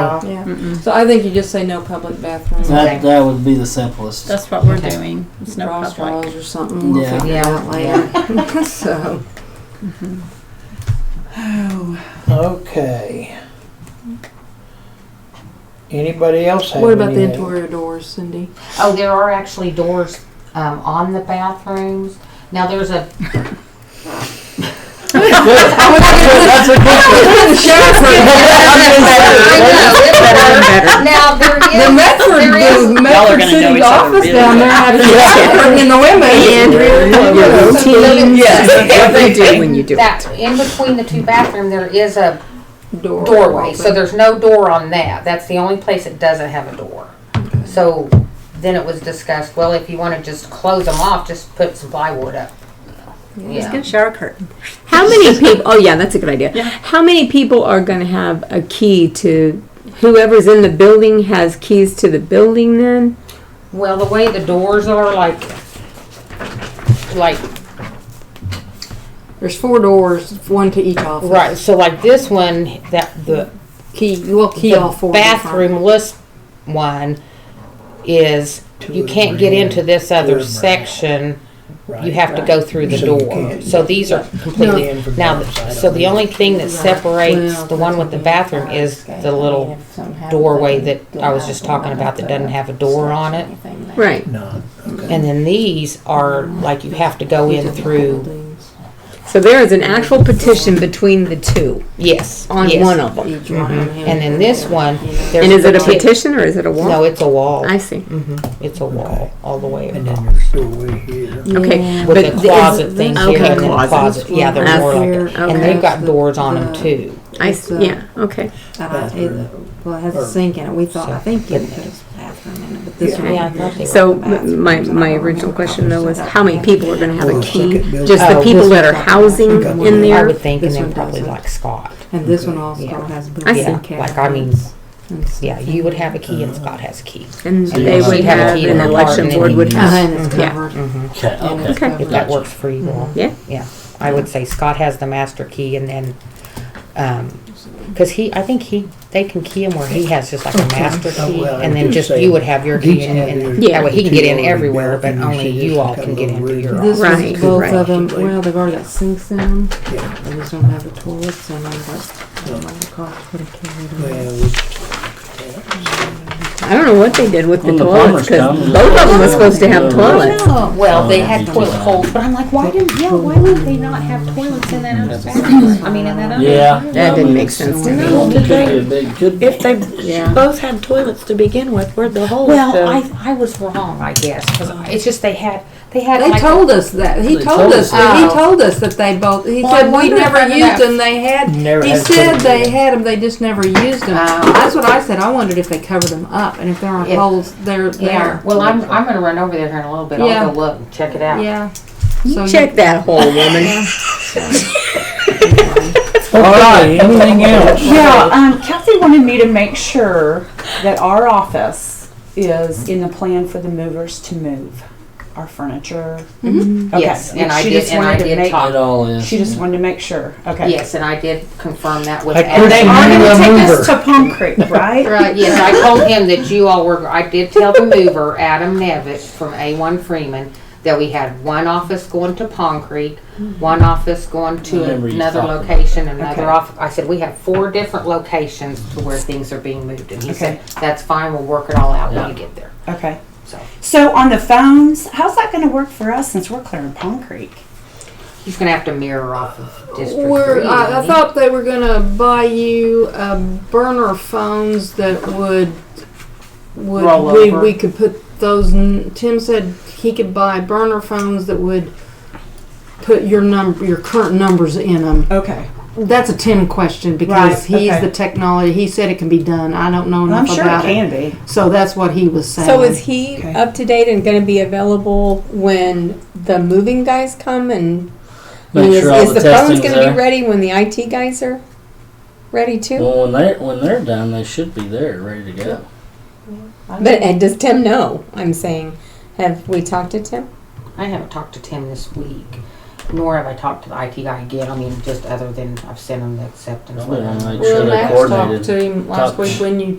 Yeah. Mm-mm. So I think you just say no public bathrooms. That, that would be the simplest. That's what we're Okay. doing. It's no Draw public. straws or something. We'll Yeah. figure it out later. so Mhm. Okay. Anybody else have what about the anything? interior doors, Cindy? Oh, there are actually doors um, on the bathrooms. Now there's a That's a good now there The is Medford, there is the Y'all are Medford gonna know City each other office really down there had a bathroom in the women. Team. Yes, what they do when you do it. that in between the two bathroom there is a Door doorway. So open. there's no door on that. That's the only place it doesn't have a door. So then it was discussed. Well, if you want to just close them off, just put some plywood up. Just Yeah. get a shower curtain. How many people? Oh, yeah, that's a good idea. Yeah. How many people are going to have a key to whoever's in the building has keys to the building? Then Well, the way the doors are, like, like There's four doors, one to each office. right. So like this one, that the Key. We'll key the all four. bathroom list one is To you the can't get grand into this other grand. section. You Right. have to go through the So you door. can't. So these are completely in from now. the other side, So I the don't only thing that Right. separates Well, the one with the bathroom is the little doorway that I was just talking about that doesn't have a door on it. right. No. Okay. And then these are like you have to go in through. So there is an actual petition between the two Yes, on yes. one of them. Each one. And then this one, there's And is it a peti- petition or is it a wall? No, it's a wall. I see. hmm It's a wall all the way And around. then there's doorway here. with Okay, But the is- closet things okay, here and then closet. closet. Yeah, they're That's more like where- that. And okay. they've got doors on them The- too. I It's, see. uh, Yeah. Okay. Uh, it, well, it has a Or- sink in it. We thought, I think you but- put a bathroom in it, but this Yeah. one. Yeah, I thought they were. So m- my my original question though was how many people are going to have a key? Just the Oh, people this that are housing in I there. would think, and This then one probably doesn't. like Scott. And this one also Yeah. has. I see. Yeah, built-in like I mean, cabinets and stuff. yeah, you would have a key and Scott has a key. And So you they must would have a have, key an in the election apartment board would and Uh-huh, have. and it's Yeah. covered. Okay, And it's okay. Okay. If that works for you all. Yeah. Mm-hmm. Yeah, I would say Scott has the master key and then, um 'cause cause he, I think he, they can key him where he has just like a master Oh, key. well, And then I'm just, just you would saying, have your each key and, have and your- that way he can the get in two already everywhere, built but and you only see you just all a can couple get of into your rooms. This office. Right, is both right. of them, well, they've already got sinks in them, Yeah. they just don't have the toilets in them, but I don't know the cost would have carried them. Well, we- I don't know what they did with the When the toilets plumbers because come, both the of them were plumbers supposed to come, have they'll- toilets. Well, they Oh, had yeah. toilet holes, but I'm like, why didn't, yeah, why would they not have toilets in that other bathroom? I mean, in that other. Yeah. That I didn't mean, make it's- sense to me. Well, it Could be, could be. If they both had toilets to begin with, where'd the holes Well, go? I, I was wrong, I guess, cause it's just they had, they had They like. told us that, he They told told us, us that. he that. told us that they both, he Well, I said, we wonder if never none of used that- them, they had, Never he had said toilet they in. had them, they just never used them. Oh. That's what I said, I wondered if they covered them up, and if there are Yeah. holes, they're Yeah, there. well, I'm, I'm gonna run over there here in a little bit, Yeah. I'll go look and check it out. Yeah. So You you- check that hole, woman. All right, anything else? Yeah, um, Kathy wanted me to make sure that our office is in the plan for the movers to move our furniture. Okay, Mm-hmm. Yes, and I she did- just and I wanted to did make- talk. It all is. She just wanted to make sure, okay. Yes, and I did confirm that with. Like Adam. They Christian are Miller gonna take mover. us to Palm Creek, right? Right, yes, I told him that you all were, I did tell the mover, Adam Nevitt from A1 Freeman, that we had one office going to Pond Creek, one office going to Remember you another talking about location, another Okay. off, I said, we have four different locations to where things are being moved. And he said, that's fine, we'll work it all out when you get there, Okay, so. so on the phones, how's that gonna work for us since we're clearing Palm Creek? He's gonna have to mirror off of District Three. We're, I, isn't I he? thought they were gonna buy you uh, burner phones that would would Roll we, over. we could put those. n- Tim said he could buy burner phones that would put your number your current numbers in them. Okay, That's a Tim question because Right, he's okay. the technology. He said it can be done. I don't know I'm enough sure it about can be. So that's what he was saying. So is he Okay. up to date and going to be available when the moving guys come and I mean, Make is, sure all is the the phone's testing's going to be there. ready when the IT guys are ready too? Well, when they're, when they're done, they should be there, ready to go. But and does Tim know? I'm saying, have we talked to Tim? I haven't talked to Tim this week, nor have I talked to the IT guy again. I mean, just other than I've sent him the acceptance Well, letter. make sure they coordinated. him last Talk- week when you